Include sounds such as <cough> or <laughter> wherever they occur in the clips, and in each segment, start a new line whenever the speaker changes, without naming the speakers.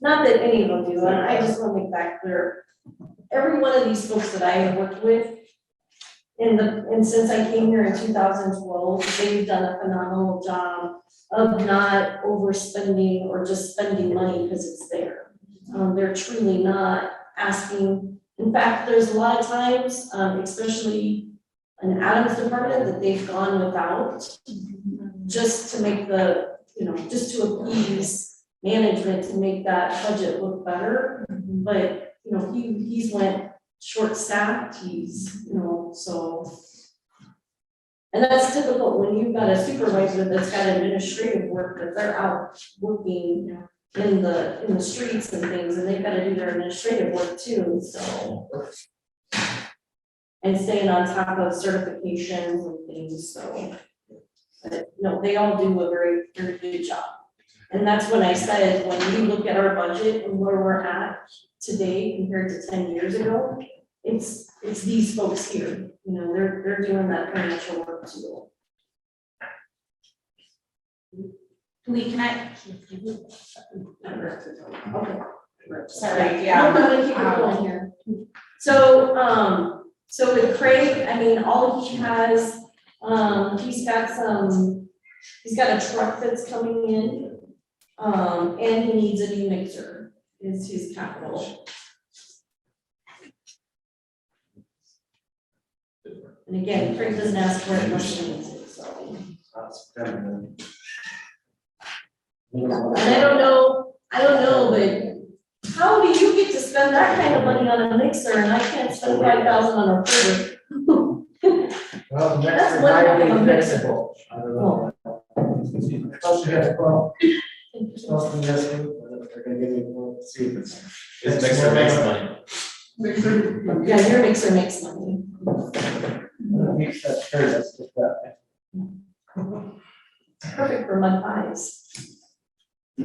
Not that any of them do, and I just wanna make that clear. Every one of these folks that I have worked with in the, and since I came here in two thousand twelve, they've done a phenomenal job of not overspending or just spending money because it's there. Um, they're truly not asking, in fact, there's a lot of times, um, especially in Adam's department, that they've gone without just to make the, you know, just to appease management to make that budget look better. But, you know, he, he's went short staffed, he's, you know, so. And that's difficult when you've got a supervisor that's got administrative work, that they're out working in the, in the streets and things, and they've gotta do their administrative work too, so. And staying on top of certifications and things, so. But no, they all do a very, very good job. And that's when I said, when we look at our budget and where we're at today compared to ten years ago, it's, it's these folks here, you know, they're, they're doing that financial work too.
Lee, can I,
Okay.
sorry,
I'm
yeah,
gonna keep it going here. Um, So, um, so with Craig, I mean, all he has, um, he's got some, he's got a truck that's coming in. Um, and he needs a new mixer, is his capital. And again, Craig doesn't ask for it unless he needs it, so.
That's kind
And I
of.
don't know, I don't know, but how do you get to spend that kind of money on a mixer and I can't spend five thousand on a printer?
Well, the
That's
next
one of
might
Oh.
be
them.
flexible. I don't know. Supposed to get a call, supposed to get a, they're gonna give you, see if it's.
It's makes or makes money.
Yeah, your mixer makes money.
Makes that sure, that's just that.
Perfect for mud pies. Who
Awesome,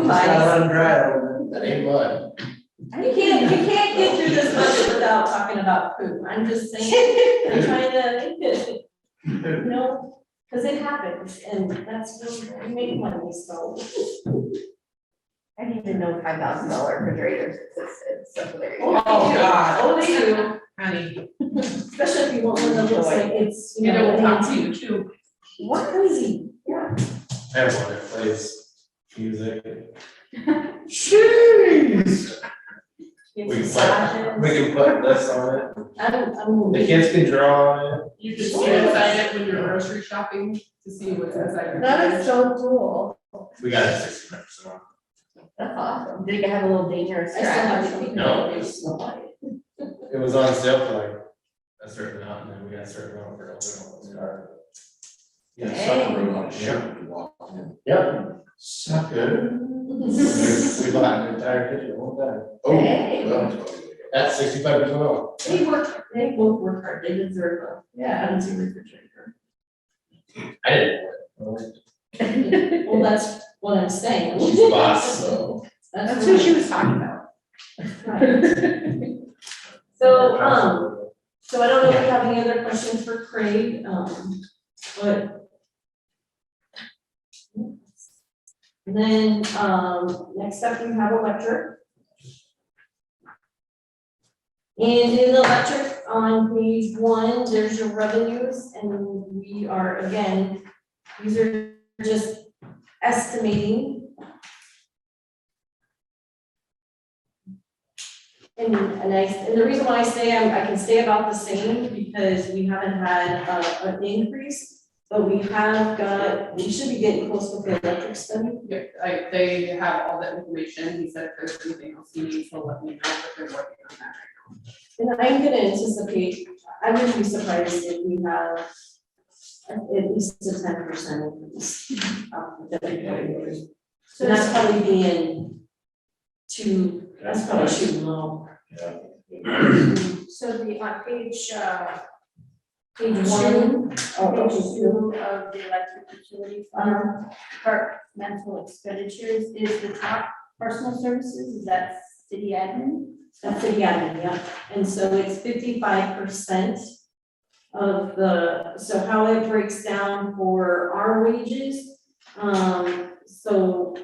it's not
buys?
on dry over
That ain't mud.
You can't, you can't get through this budget without talking about food. I'm just
<laughs>
saying, I'm trying to, you know, because it happens and that's where we make money, so.
I didn't even know five thousand dollar refrigerators existed, so there you
Oh,
go.
God.
Oh, they do.
honey,
Especially if you want one that looks like it's, you
you
know,
know, talk to
fancy.
you too.
What crazy, yeah.
I have one that plays music.
Jeez.
You
We
have
can
massages.
put, we can put this on it.
I'm, I'm.
The kids can draw on it.
You can see inside it when you're grocery shopping to see what's inside your.
That is so cool.
We got it sixty percent off.
That's awesome. Did it have a little
I
dangerous
still have to
scratch?
think
No.
about it, it's not like-
It was on sale for like a certain amount and then we got a certain amount for a little car.
Yeah, sunroom on a ship to walk in.
Yep.
Suck good.
We bought an entire
Entire kitchen, whole time.
Oh,
Hey.
well, it's probably-
That's sixty-five percent off.
<laughs> They work, they both work hard, they deserve a, yeah, fancy refrigerator.
I didn't.
Well, that's what I'm saying.
She's the boss, so.
<laughs> That's
That's
who
what
she
you.
was talking about.
So, um, so I don't know if you have any other questions for Craig, um, but. And then, um, next up, we have electric. And in electric, on page one, there's your revenues, and we are, again, these are just estimating. And, and I, and the reason why I say I'm, I can stay about the same, because we haven't had, uh, an increase, but we have got, we should be getting close with the electric spending.
Yeah, like, they have all that information, he said if there's anything else you need, so let me know if they're working on that.
And I'm gonna anticipate, I wouldn't be surprised if we have at at least a ten percent increase. um, that we have in there. So that's probably being too, that's probably too low.
So the, on page, uh,
Page one, oh,
page
page two,
two of the electric utility fund,
um,
departmental expenditures is the top personal services, is that city admin?
that's a yeah, yeah. And so it's fifty-five percent of the, so how it breaks down for our wages. Um, so